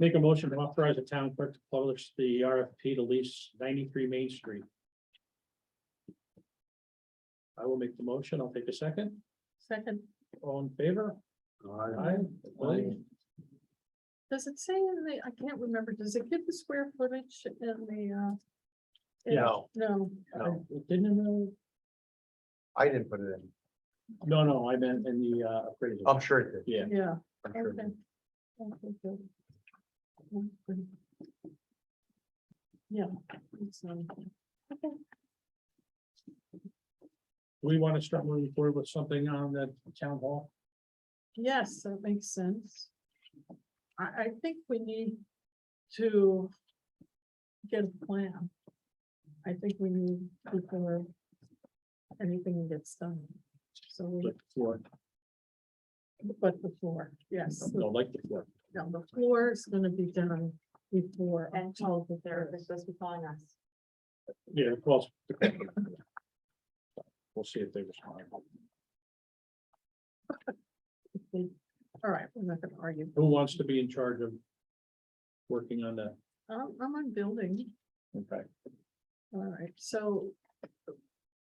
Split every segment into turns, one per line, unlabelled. Make a motion to authorize the town clerk to publish the RFP to lease ninety-three Main Street. I will make the motion. I'll take a second.
Second,
All in favor? Aye. Opposed?
does it say in the, I can't remember, does it give the square footage in the, uh? in-
Yeah.
No,
No, it Didn't, uh,
I didn't put it in.
no, no, I meant in the uh, appraisal.
I'm sure it did.
Yeah,
yeah,
I'm sure it
okay.
did.
Okay, good. Okay. Yeah. it's not- okay.
we want to start moving forward with something on the town hall.
Yes, that makes sense. I, I think we need to get a plan. I think we need before anything gets done. So we,
Like the floor,
but the floor, yes,
no, like the floor.
no, the floor is gonna be done before.
And told that they're they're supposed to be calling us.
Yeah, of course. We'll see if they respond.
All right, we're not gonna argue.
Who wants to be in charge of working on that?
I'm, I'm on building.
Okay,
All right, so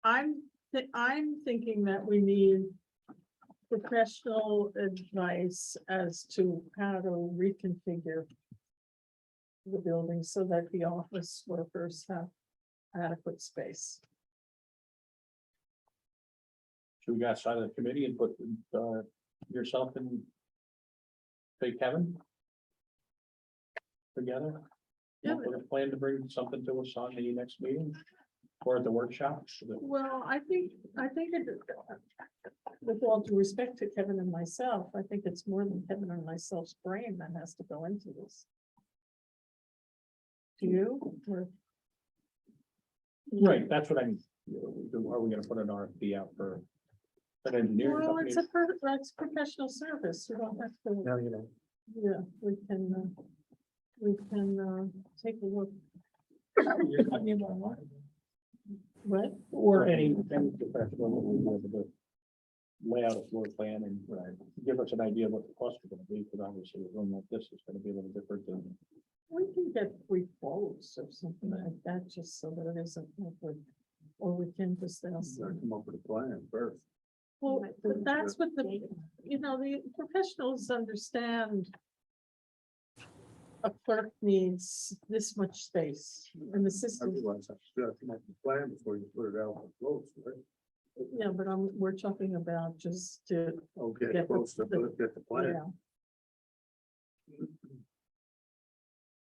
I'm, thi- I'm thinking that we need professional advice as to how to reconfigure the building so that the office workers have adequate space.
should we go outside of the committee and put uh, yourself and say Kevin? Together?
Yeah.
With a plan to bring something to us on the next meeting or at the workshop? so that-
Well, I think, I think it- with all due respect to Kevin and myself, I think it's more than Kevin and myself's brain that has to go into this. Do you? Or-
Right, that's what I mean. You know, Are we gonna put an RFP out for an engineering
Well,
company?
it's a, per- that's professional service, you don't have to,
No, you know,
yeah, we can, uh, we can, uh, take a look,
Your company online?
what,
Or any, any professional, what we want to do. Lay out a floor plan and uh, give us an idea of what the costs are gonna be, because obviously a room like this is gonna be a little different than.
we can get three quotes or something like that, just so that it isn't awkward. Or we can just ask, them.
Come up with a plan first.
well,
might
but
put it
that's what the,
Date.
you know, the professionals understand. A clerk needs this much space, and the system,
I should have come up with a plan before you put it out on close, right?
yeah, but I'm, we're talking about just to
Okay,
Get the- close to the-
get the
Yeah.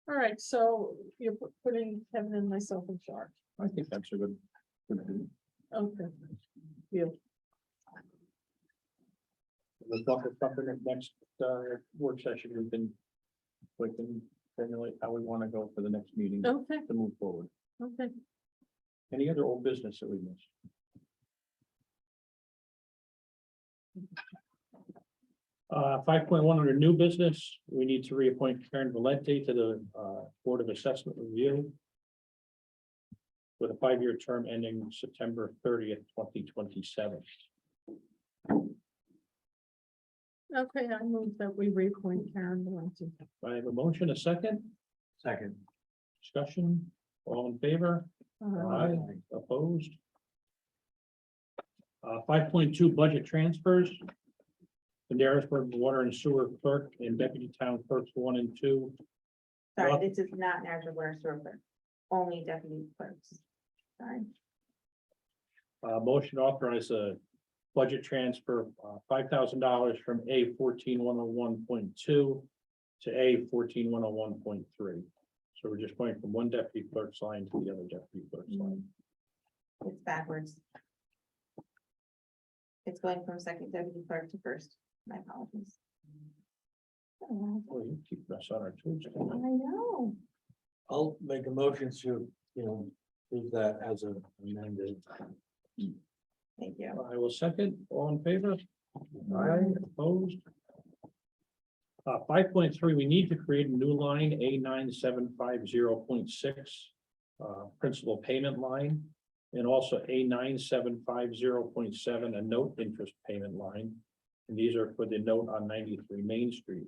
All right, so you're pu- putting Kevin and myself in charge.
I think that's a good. good-
Okay,
Let's talk about something at next uh, work session, we can, we can formulate how we want to go for the next meeting to
okay,
move forward.
okay.
Any other old business that we missed? Uh, five point one under new business, we need to reappoint Karen Valente to the uh, Board of Assessment Review with a five-year term ending September thirtieth, twenty twenty-seven.
Okay, I move that we reappoint Karen Valenti.
I have a motion, a second,
Second.
discussion, all in favor?
Uh,
Aye. Opposed? Uh, five point two budget transfers. The Darisburg Water and Sewer Clerk and Deputy Town Clerks one and two. Well-
Sorry, this is not Niagara Water Sewer, only deputy clerks. Sorry.
Uh, motion to authorize a budget transfer, uh, five thousand dollars from A fourteen one oh one point two to A fourteen one oh one point three. So we're just going from one deputy clerk's line to the other deputy clerk's line.
It's backwards. It's going from second deputy clerk to first. My apologies. Oh,
Boy, you keep us on our toes.
I know.
I'll make a motion to, you know, prove that as a amended.
Thank you.
I will second. All in favor? Aye. Opposed? Uh, five point three, we need to create a new line, A nine seven five zero point six, uh, principal payment line. And also A nine seven five zero point seven, a note interest payment line. And these are for the note on ninety-three Main Street.